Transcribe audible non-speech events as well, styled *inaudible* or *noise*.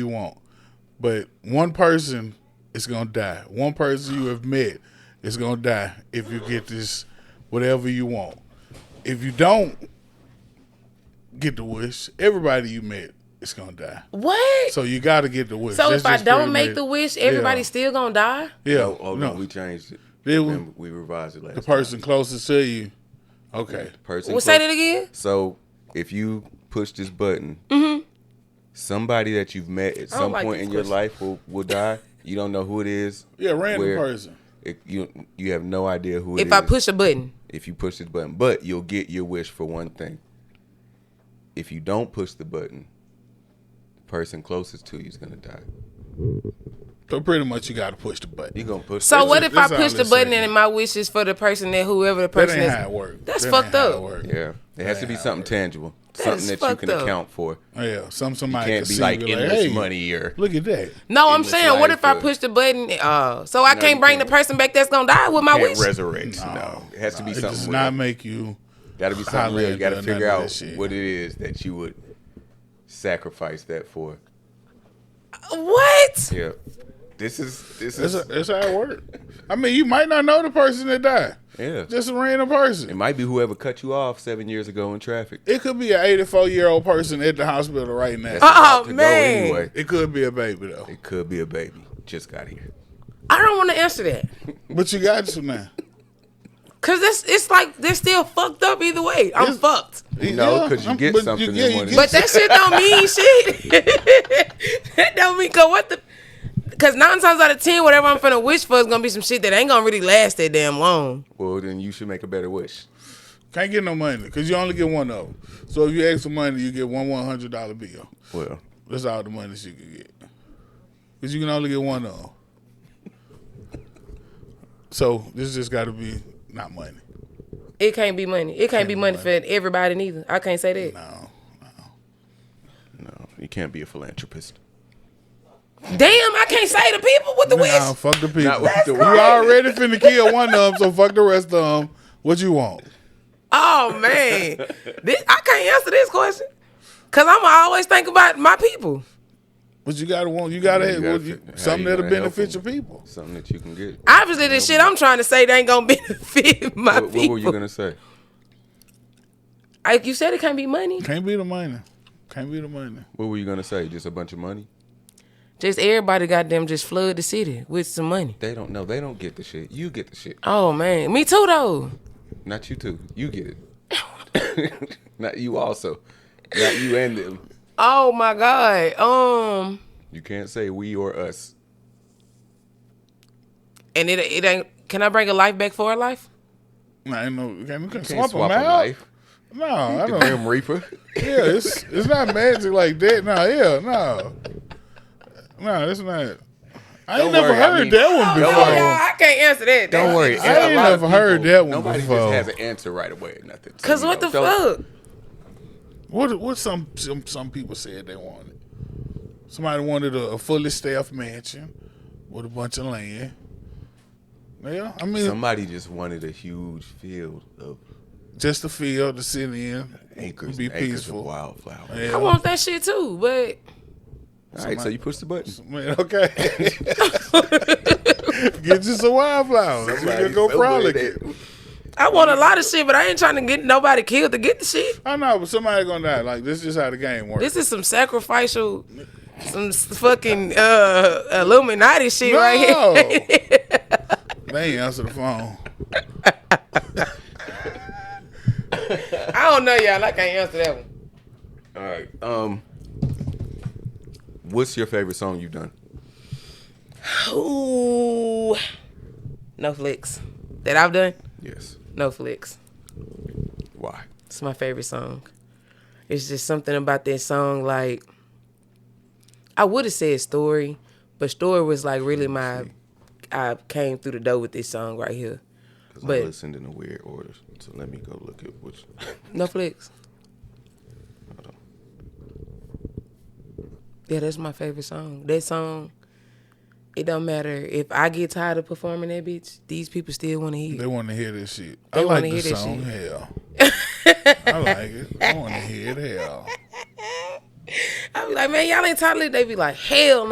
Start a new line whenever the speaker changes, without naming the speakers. you want, but one person is gonna die. One person you have met is gonna die if you get this whatever you want. If you don't get the wish, everybody you met is gonna die.
What? So,
So you got to get the wish. That's
if I
just
don't
pretty
make
much-
the wish, everybody's
yeah.
still gonna die?
yeah.
Oh, oh, no,
no,
we changed it.
Did we?
Then we revised it last.
the person closest to you. Okay.
Person.
Well, say
close-
that again.
So if you push this button, somebody that you've met at some
Mm-hmm. like
point
this
in your
question.
life will, will die. You don't know who it is.
Yeah, random
where-
person.
It, you you have no idea who it is.
If I push a button,
if you push this button, but you'll get your wish for one thing. If you don't push the button, the person closest to you is gonna die.
So pretty much you got to push the button.
You gonna push.
so
this
what
That's-
if I
that's how
push the
this
button
is.
and my wish is for the person that whoever the
That
person
ain't
is?
how it works.
That's fucked up.
Yeah, it has to be
Yeah,
something tangible, something
is
that you
fucked
can
up.
account for.
Yeah, some somebody
Can't
can
be
see
like
you
endless
hey,
money or
Look at that.
No, I'm
endless
saying, what
life
if I
or-
push the button? Uh, so I
No,
can't
you
bring
can't.
the person back that's gonna die with my
can't
wish.
resurrect. No, it has to
Nah,
be
It does
something.
not
Not
make you.
gotta be something
highlight
real. You gotta
none
figure
of that
out
shit.
what it is that you would sacrifice that for.
what?
Yeah, this is this
That's,
is
that's how it works. I mean, you might not know the person that died.
yeah.
Just a random
it
person.
might be whoever cut you off seven years ago in traffic.
It could be an 84 year old person at the hospital right now.
That's about to go
Oh, man.
It could be a baby though.
It could be a baby. Just got here.
I don't want to answer that
But you got to now.
because that's it's like they're still fucked up either way. I'm
It's-
fucked.
No, 'cause you
I'm-
get
but
something
yeah,
in one of
But that shit don't mean shit. *laughs* that don't mean cause what the cause nine times out of ten, whatever I'm finna wish for is gonna be some shit that ain't gonna really last that damn long.
Well, then you should make a better wish.
Can't get no money because you only get one of them. So if you ask for money, you get one one hundred dollar bill.
Well,
That's all the money that you can get because you can only get one of them. So this just got to be not money.
It can't be money. It can't be money for everybody neither. I can't say that.
No,
no, you can't be a philanthropist.
Damn, I can't say the people with the
nah,
wish.
fuck the people.
Not with the
you already finna kill one of them, so fuck the rest of them. What you want?
Oh man, this, I can't answer this question because I'm always think about my people.
But you gotta want. You gotta,
You
have,
gotta
what you-
fi- how
something
you
that'll
gonna help
benefit your
them.
people.
Something that you can get.
*laughs*
Obviously, the shit I'm trying to say they ain't gonna *laughs* benefit my
What,
people.
what were you gonna say?
Like you said, it can't be money.
Can't be the money. Can't be the money.
What were you gonna say? Just a bunch of money?
Just everybody, goddamn, just flood the city with some money.
They don't know. They don't get the shit. You get the shit.
Oh man, me too though.
Not you too. You get it. *laughs* Not you also. Not you and them.
Oh my god. Um,
You can't say we or us.
and it it ain't. Can I bring a life back for a life?
Nah, ain't no. Can't, you can't
Can't
swap, them out. *laughs* No, I
The
don't.
Grim Reaper.
*laughs* Yeah, it's it's not magic like that. No, yeah, no, no, it's not. I ain't
Don't
never
worry, I
heard
mean-
that one
Don't
before.
Oh,
worry.
y'all, I can't answer that.
Don't worry.
I ain't
A lot of
never heard that one
Nobody
before.
just has an answer right away or nothing. So,
Cause
you
what
know,
the
don't-
fuck?
What what some some some people said they wanted. Somebody wanted a, a fully staffed mansion with a bunch of land. Yeah, I mean
Somebody just wanted a huge field of
just a field to sit in,
acres,
be
and acres of
peaceful.
wildflower.
Yeah.
I want that shit too, but
All right, so you push the button.
*laughs* Man, okay. *laughs* Get you some wildflowers. You can go
Somebody-
frolic.
I want a lot of shit. But I ain't trying to get nobody killed to get the shit.
I know, but somebody gonna die. Like this is how the game works.
This is some sacrificial, some s- fucking uh, Illuminati shit right here. *laughs*
they ain't answer the phone.
I don't know, y'all. I can't answer that one.
All right. Um, what's your favorite song you've done?
Ooh, no flicks that I've done.
Yes.
No flicks.
Why?
It's my favorite song. It's just something about that song. Like I would have said story, but story was like really my. I came through the door with this song right here.
Because
But-
I listened in a weird order. So let me go look at which.
No flicks. Yeah, that's my favorite song. That song, it don't matter if I get tired of performing that bitch. These people still want to hear.
They
it.
want to hear this shit.
They
I like
wanna
the
hear this
song.
*laughs* shit.
Hell, I like it. I want to hear it. Hell,
I be like, man, y'all ain't trying to live. They be like, hell no,